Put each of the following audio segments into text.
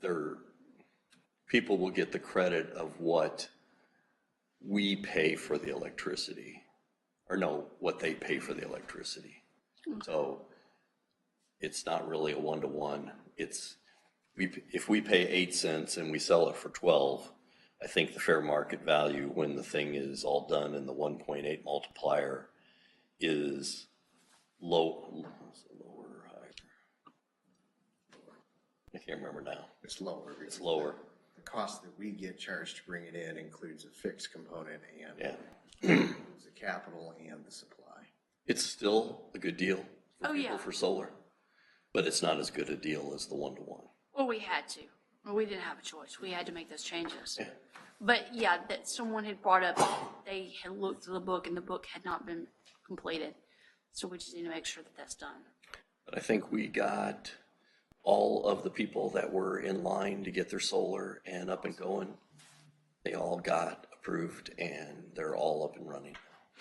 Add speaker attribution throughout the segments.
Speaker 1: their, people will get the credit of what we pay for the electricity, or no, what they pay for the electricity. So it's not really a one-to-one. It's, we, if we pay eight cents and we sell it for 12, I think the fair market value when the thing is all done and the 1.8 multiplier is low, is it lower or higher? I can't remember now.
Speaker 2: It's lower.
Speaker 1: It's lower,
Speaker 2: The cost that we get charged to bring it in includes a fixed component and
Speaker 1: yeah.
Speaker 2: includes the capital and the supply.
Speaker 1: It's still a good deal
Speaker 3: Oh,
Speaker 1: for people
Speaker 3: yeah.
Speaker 1: for solar, but it's not as good a deal as the one-to-one.
Speaker 3: Well, we had to. Well, we didn't have a choice. We had to make those changes. But yeah, that someone had brought up, they had looked at the book and the book had not been completed. So we just need to make sure that that's done.
Speaker 1: But I think we got all of the people that were in line to get their solar and up and going. They all got approved and they're all up and running.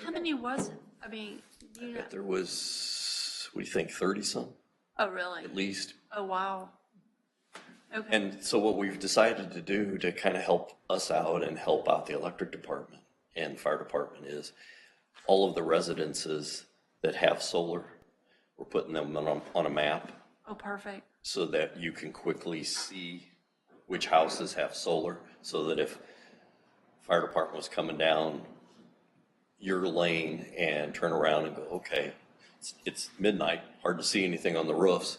Speaker 3: How many was it? I mean, do you know,
Speaker 1: If there was, what do you think, thirty-some
Speaker 3: oh, really?
Speaker 1: at least?
Speaker 3: Oh, wow. Okay,
Speaker 1: And so what we've decided to do to kind of help us out and help out the electric department and fire department is all of the residences that have solar, we're putting them on, a- on a map
Speaker 3: oh, perfect.
Speaker 1: so that you can quickly see which houses have solar, so that if fire department was coming down your lane and turn around and go, okay, it's- it's midnight, hard to see anything on the roofs,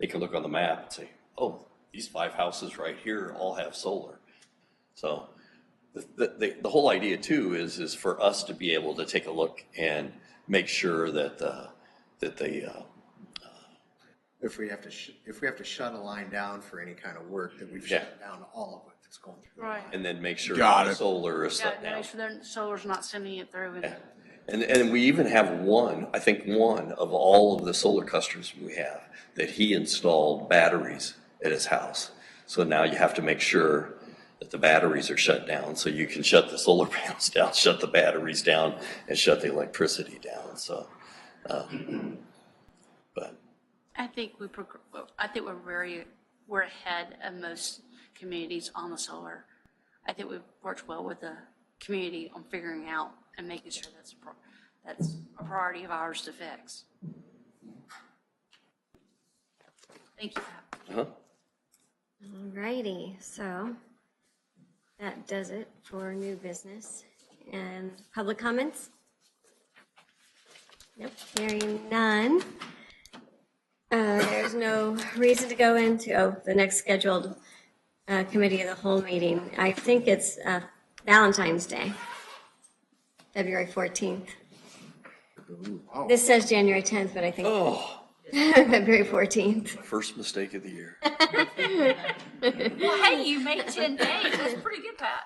Speaker 1: they can look on the map and say, oh, these five houses right here all have solar. So the, the, the whole idea too is, is for us to be able to take a look and make sure that, uh, that the, uh,
Speaker 2: If we have to, sh- if we have to shut a line down for any kind of work, that we've
Speaker 1: Yeah.
Speaker 2: shut down all of it that's going through. the
Speaker 3: Right.
Speaker 2: line.
Speaker 1: and then make sure
Speaker 4: Got
Speaker 1: the
Speaker 4: it.
Speaker 1: solar is
Speaker 3: Yeah,
Speaker 1: shut down.
Speaker 3: make sure their solar's not sending it through and,
Speaker 1: And, and we even have one, I think one of all of the solar customers we have, that he installed batteries at his house. So now you have to make sure that the batteries are shut down, so you can shut the solar panels down, shut the batteries down, and shut the electricity down, so. um, But,
Speaker 3: I think we, progr- I think we're very, we're ahead of most communities on the solar. I think we've worked well with the community on figuring out and making sure that's, a pro- that's a priority of ours to fix. Thank you. Pat.
Speaker 1: uh-huh,
Speaker 5: Alrighty, so that does it for new business and public comments? Nope, hearing none. Uh, There's no reason to go into, oh, the next scheduled uh, committee of the whole meeting. I think it's uh, Valentine's Day, February 14th.
Speaker 2: oh.
Speaker 5: This says January 10th, but I think
Speaker 1: oh,
Speaker 5: February 14th.
Speaker 1: my first mistake of the year.
Speaker 3: Well, hey, you made ten days. That's pretty good, Pat.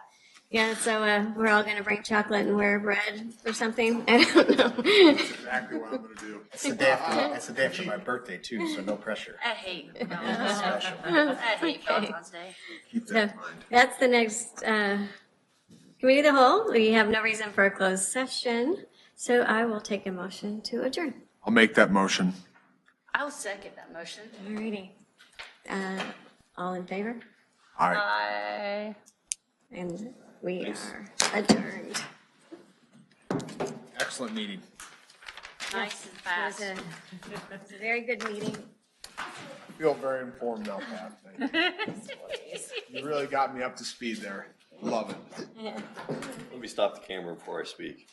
Speaker 5: Yeah, so uh, we're all gonna bring chocolate and wear red or something. I don't know.
Speaker 4: Exactly what I'm gonna do.
Speaker 2: It's the day after, it's the day after my birthday too, so no pressure.
Speaker 3: I hate,
Speaker 2: It's
Speaker 3: Valentine's Day.
Speaker 2: special.
Speaker 3: I hate Valentine's Day.
Speaker 2: Keep
Speaker 5: So
Speaker 2: that in mind.
Speaker 5: that's the next uh, committee of the whole. We have no reason for a closed session, so I will take a motion to adjourn.
Speaker 4: I'll make that motion.
Speaker 3: I'll second that motion.
Speaker 5: Alrighty. Uh, all in favor?
Speaker 4: All right.
Speaker 3: Bye.
Speaker 5: And we are adjourned.
Speaker 4: Excellent meeting.
Speaker 3: Nice and
Speaker 5: It
Speaker 3: fast.
Speaker 5: was a, it was a very good meeting.
Speaker 4: Feel very informed now, Pat. Thank you. You really got me up to speed there. Love it.
Speaker 1: Let me stop the camera before I speak.